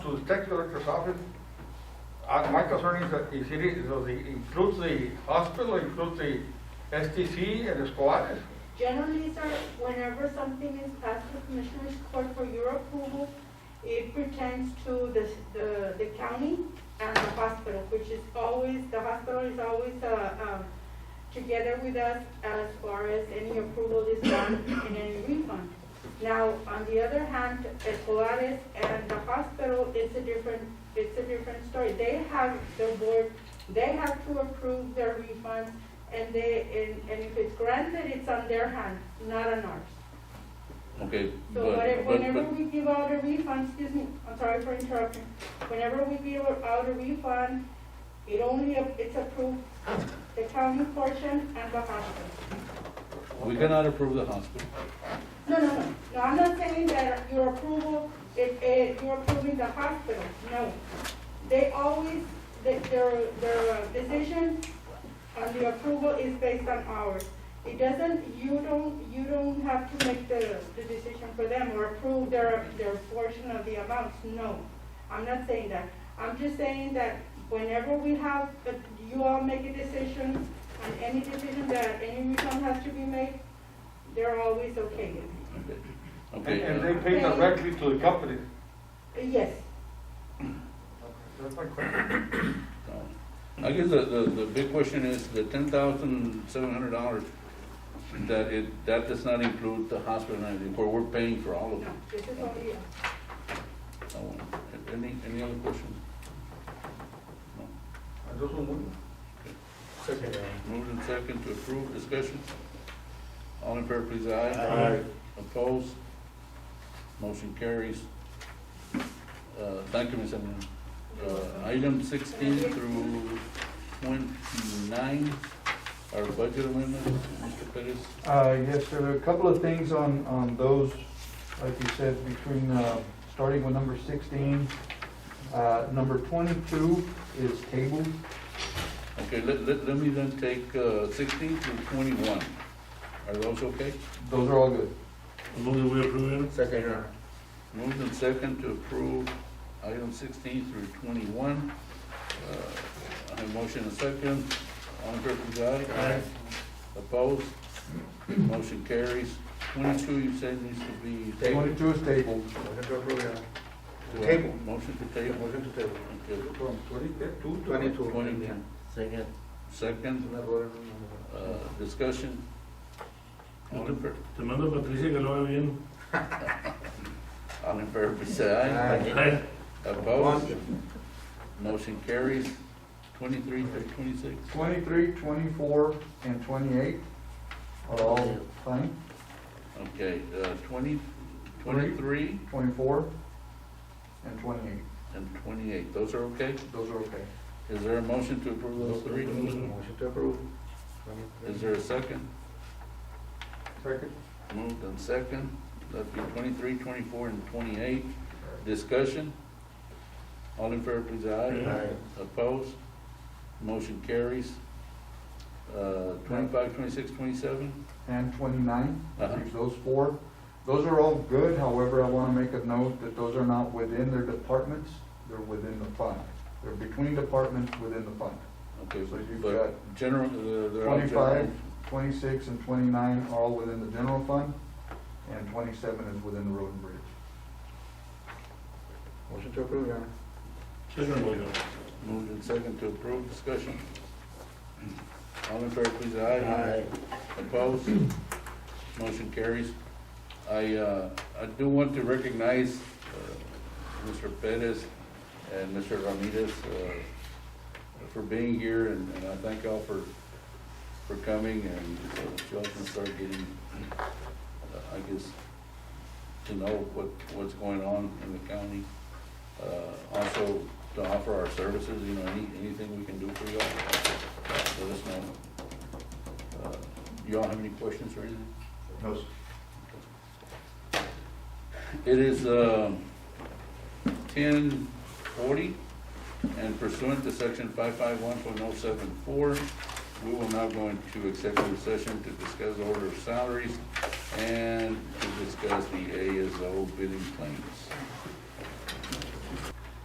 To the tax collector's office, uh, my concern is that if it is, does it includes the hospital, includes the STC and Escobares? Generally, sir, whenever something is passed to Commissioners Court for your approval, it pertains to the, the, the county and the hospital, which is always, the hospital is always, uh, um, together with us as far as any approval is done and any refund. Now, on the other hand, Escolares and the hospital, it's a different, it's a different story. They have the board, they have to approve their refunds, and they, and, and if it's granted, it's on their hand, not on ours. Okay, So what- but, but, whenever but, we give out a refund, excuse me, I'm sorry for interrupting, whenever we give out a refund, it only, it's approved, the county portion and the hospital. we cannot approve the hospital. No, no, no, no, I'm not saying that your approval, if, if you're approving the hospital, no. They always, they- their, their uh, decision on the approval is based on ours. It doesn't, you don't, you don't have to make the, the decision for them or approve their, their portion of the amounts, no. I'm not saying that. I'm just saying that whenever we have, that you all make a decision on any decision that any refund has to be made, they're always okay with it. And Okay, and uh, they pay directly to the company. Uh, Yes, That's my question. I guess the, the, the big question is the ten thousand seven hundred dollars, that it, that does not include the hospital and everything, where we're paying for all of no, it. this is only, uh, So, Any, any other questions? No. I just want Second. Moved and second to approve, discussion. All in favor, please, aye. Aye. Opposed? Motion carries. Uh, Thank you, Ms. Emerald. Uh, Item sixteen through twenty-nine, our budget amendment, Mr. Perez. Uh, Yes, there are a couple of things on, on those, like you said, between, uh, starting with number 16. Uh, Number 22 is tabled. Okay, let, let, let me then take uh, sixteen through twenty-one. Are those okay? Those are all good. Move that we approve them? Second, Your Honor. Moved and second to approve item sixteen through twenty-one. Uh, I have motion and second. All in favor, please, aye. Aye. Opposed? Motion carries. Twenty-two, you said needs to be tabled. 22 is tabled. Motion to approve, Your Honor. Do I- Table. Motion to table. Motion to table. Okay. From twenty-two to Twenty-two. Twenty-two. Second. Second, Una por- una uh, discussion. All in favor, Te mando a Patricia que lo haga bien. all in favor, please, aye. Aye. por- Opposed? Motion carries. Twenty-three through twenty-six. 23, 24, and 28 are all fine. Okay, uh, twenty, twenty-three 24 and 28, and twenty-eight, those are okay? those are okay. Is there a motion to approve those three? Motion to approve. Is there a second? Second. Moved and second, that'd be twenty-three, twenty-four, and twenty-eight. Discussion? All in favor, please, aye. Aye. Opposed? Motion carries. Uh, twenty-five, twenty-six, twenty-seven? And 29, Uh-huh. Leaves those four. Those are all good, however, I want to make a note that those are not within their departments, they're within the fund. They're between departments within the fund. Okay, So you've but general, uh, they're all general. 25, 26, and 29 are all within the general fund, and 27 is within the road and bridge. Motion to approve, Your Honor. Second, Michael. Moved and second to approve, discussion? All in favor, please, aye. Opposed? Motion carries. I, uh, I do want to recognize uh, Mr. Perez and Mr. Ramirez uh, for being here, and and I thank y'all for, for coming, and so that y'all can start getting, uh, I guess, to know what, what's going on in the county. Uh, Also, to offer our services, you know, any, anything we can do for y'all, let us know. Uh, Y'all have any questions or anything? No, sir. It is um, ten forty, and pursuant to section five five one point oh seven four, we will now go into executive session to discuss order of salaries and to discuss the ASO bidding claims.